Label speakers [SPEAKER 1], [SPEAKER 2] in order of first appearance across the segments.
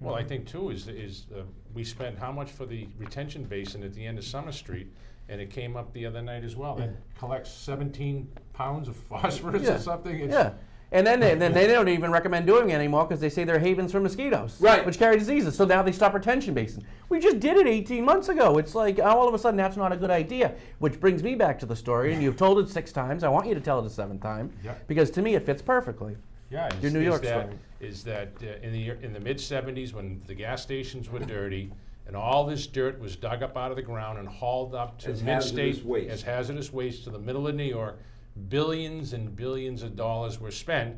[SPEAKER 1] Well, I think too is, is uh, we spent how much for the retention basin at the end of Summer Street? And it came up the other night as well. That collects seventeen pounds of phosphorus
[SPEAKER 2] Yeah.
[SPEAKER 1] or something. It's-
[SPEAKER 2] Yeah. And then, they, then they don't even recommend doing it anymore because they say they're havens for mosquitoes,
[SPEAKER 3] Right.
[SPEAKER 2] Which carry diseases. So now they stop retention basin. We just did it 18 months ago. It's like oh, all of a sudden that's not a good idea. Which brings me back to the story, and you've told it six times. I want you to tell it a seventh time
[SPEAKER 1] Yeah.
[SPEAKER 2] because to me it fits perfectly.
[SPEAKER 1] Yeah, is,
[SPEAKER 2] Your New
[SPEAKER 1] is
[SPEAKER 2] York
[SPEAKER 1] that,
[SPEAKER 2] story.
[SPEAKER 1] is that uh, in the year- in the mid '70s when the gas stations were dirty, and all this dirt was dug up out of the ground and hauled up to
[SPEAKER 3] As
[SPEAKER 1] mid-state
[SPEAKER 3] hazardous waste.
[SPEAKER 1] as hazardous waste to the middle of New York. Billions and billions of dollars were spent,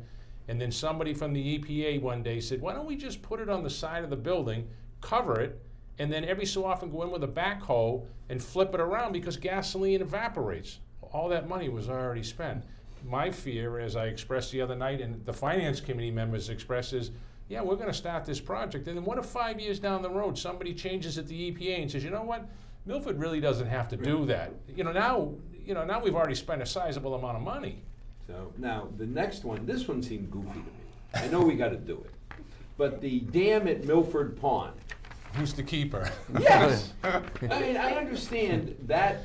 [SPEAKER 1] and then somebody from the EPA one day said, "Why don't we just put it on the side of the building, cover it?" And then every so often go in with a backhoe and flip it around because gasoline evaporates. All that money was already spent my fear, as I expressed the other night, and the finance committee members expressed, is yeah, we're going to start this project. And then what if five years down the road somebody changes at the EPA and says, you know what, Milford really doesn't have to do that. You know now, you know now we've already spent a sizable amount of money.
[SPEAKER 3] So now the next one, this one seemed goofy to me. I know we got to do it, but the dam at Milford Pond.
[SPEAKER 1] Who's the keeper?
[SPEAKER 3] Yes. I mean, I understand that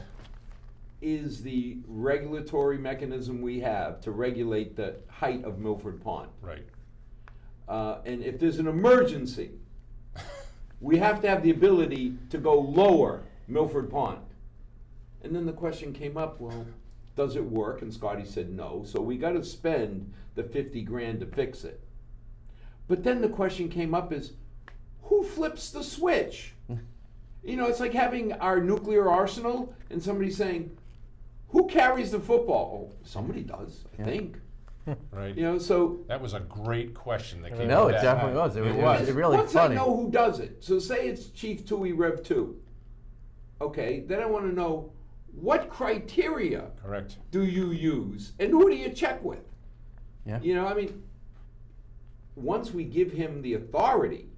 [SPEAKER 3] is the regulatory mechanism we have to regulate the height of Milford Pond.
[SPEAKER 1] right.
[SPEAKER 3] Uh, and if there's an emergency, we have to have the ability to go lower Milford Pond. And then the question came up, well, does it work? And Scotty said no. So we got to spend the 50 grand to fix it. But then the question came up is who flips the switch? you know, it's like having our nuclear arsenal and somebody saying, who carries the football? Oh, somebody does, I think.
[SPEAKER 1] Right.
[SPEAKER 3] You know, so
[SPEAKER 1] That was a great question that came.
[SPEAKER 2] No,
[SPEAKER 1] up
[SPEAKER 2] it
[SPEAKER 1] that
[SPEAKER 2] definitely
[SPEAKER 1] night.
[SPEAKER 2] was. It was- it was- it really
[SPEAKER 3] Once
[SPEAKER 2] funny.
[SPEAKER 3] I know who does it, so say it's Chief Tui Rev Two. Okay, then I want to know what criteria
[SPEAKER 1] correct.
[SPEAKER 3] do you use and who do you check with?
[SPEAKER 2] Yeah.
[SPEAKER 3] You know, I mean, once we give him the authority,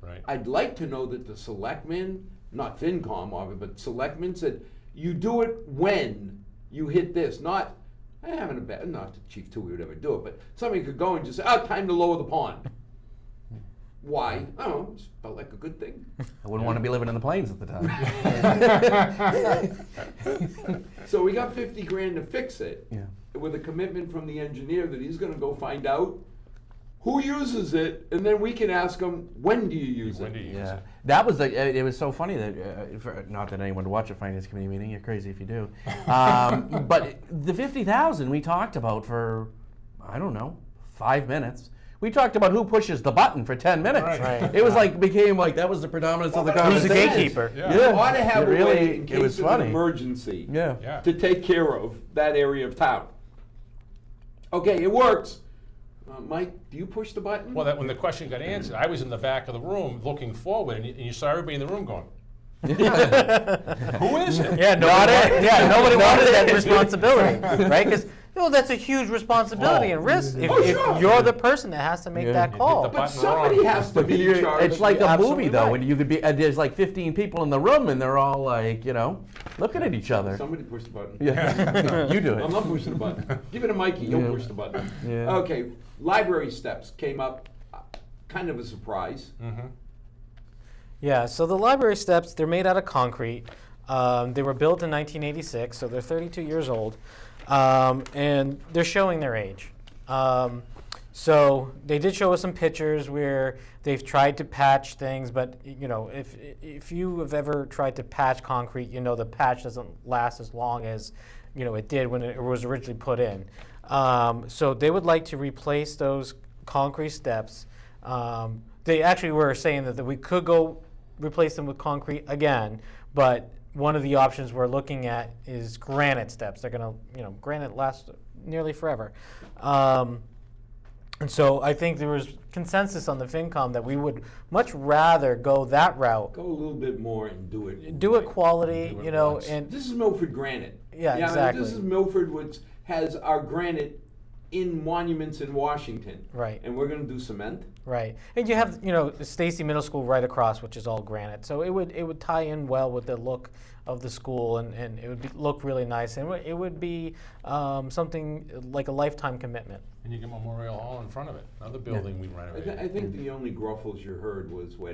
[SPEAKER 1] Right.
[SPEAKER 3] I'd like to know that the selectmen, not FinCom, obviously, but selectmen said, you do it when you hit this, not, I haven't a bad, not that Chief Tui would ever do it, but somebody could go and just say, oh, time to lower the pond. Why? I don't know, just felt like a good thing.
[SPEAKER 2] I wouldn't want to be living in the plains at the time.
[SPEAKER 3] So we got fifty grand to fix it.
[SPEAKER 2] Yeah.
[SPEAKER 3] With a commitment from the engineer that he's gonna go find out who uses it, and then we can ask him, when do you use it?
[SPEAKER 1] When do you use
[SPEAKER 2] Yeah,
[SPEAKER 1] it?
[SPEAKER 2] that was the. It, it was so funny that uh, for, not that anyone would watch a finance committee meeting. You're crazy if you do. Um, but the fifty thousand we talked about for, I don't know, five minutes. We talked about who pushes the button for ten minutes.
[SPEAKER 1] Right. Right.
[SPEAKER 2] It was like became like that was the predominance of the
[SPEAKER 4] Who's the
[SPEAKER 2] conversation.
[SPEAKER 4] gatekeeper?
[SPEAKER 1] Yeah.
[SPEAKER 3] You ought to have
[SPEAKER 2] it
[SPEAKER 3] a
[SPEAKER 2] really.
[SPEAKER 3] way in
[SPEAKER 2] it was
[SPEAKER 3] case of an
[SPEAKER 2] funny.
[SPEAKER 3] emergency.
[SPEAKER 2] Yeah.
[SPEAKER 1] Yeah.
[SPEAKER 3] To take care of that area of town. Okay, it works. Uh, Mike, do you push the button?
[SPEAKER 1] Well, that when the question got answered, I was in the back of the room looking forward, and you, and you saw everybody in the room going, "Who is it?"
[SPEAKER 4] Yeah, nobody. Wanted, yeah, nobody wanted that responsibility, right? Because no, that's a huge responsibility
[SPEAKER 1] Oh.
[SPEAKER 4] and risk. If,
[SPEAKER 3] Oh,
[SPEAKER 4] if
[SPEAKER 3] sure.
[SPEAKER 4] you're the person that has to make
[SPEAKER 2] Yeah.
[SPEAKER 4] that
[SPEAKER 2] You hit
[SPEAKER 4] call,
[SPEAKER 1] the
[SPEAKER 3] but
[SPEAKER 1] button
[SPEAKER 3] somebody
[SPEAKER 1] wrong.
[SPEAKER 3] has to
[SPEAKER 2] But
[SPEAKER 3] be
[SPEAKER 2] you're-
[SPEAKER 3] in charge.
[SPEAKER 2] it's like a
[SPEAKER 4] absolutely
[SPEAKER 2] movie though,
[SPEAKER 4] right.
[SPEAKER 2] when you could be and there's like 15 people in the room and they're all like, you know, looking at each other.
[SPEAKER 3] Somebody push the button.
[SPEAKER 2] Yeah, you do it.
[SPEAKER 3] I'm not pushing the button. Give it to Mikey. He'll
[SPEAKER 2] Yeah.
[SPEAKER 3] push the button.
[SPEAKER 2] Yeah.
[SPEAKER 3] Okay, library steps came up, uh, kind of a surprise.
[SPEAKER 2] Hmm.
[SPEAKER 4] Yeah, so the library steps, they're made out of concrete. Um, they were built in 1986, so they're 32 years old. Um, and they're showing their age. Um, so they did show us some pictures where they've tried to patch things, but y- you know, if if you have ever tried to patch concrete, you know the patch doesn't last as long as you know it did when it was originally put in. Um, so they would like to replace those concrete steps. Um, they actually were saying that, that we could go replace them with concrete again, but one of the options we're looking at is granite steps. They're gonna, you know, granite lasts nearly forever. Um, and so I think there was consensus on the FinCom that we would much rather go that route,
[SPEAKER 3] Go a little bit more and do it.
[SPEAKER 4] do it
[SPEAKER 3] right.
[SPEAKER 4] quality,
[SPEAKER 1] Do it
[SPEAKER 4] you know,
[SPEAKER 1] once.
[SPEAKER 4] and
[SPEAKER 3] This is Milford granite.
[SPEAKER 4] Yeah,
[SPEAKER 3] I mean,
[SPEAKER 4] exactly.
[SPEAKER 3] this is Milford, which has our granite in monuments in Washington.
[SPEAKER 4] Right.
[SPEAKER 3] And we're going to do cement.
[SPEAKER 4] Right, and you have you know Stacy Middle School right across, which is all granite. So it would it would tie in well with the look of the school, and, and it would be, look really nice, and it would- it would be um, something like a lifetime commitment.
[SPEAKER 1] And you get Memorial Hall in front of it, another building we
[SPEAKER 3] I,
[SPEAKER 1] renovated.
[SPEAKER 3] th- I think the only gruffles you heard was when.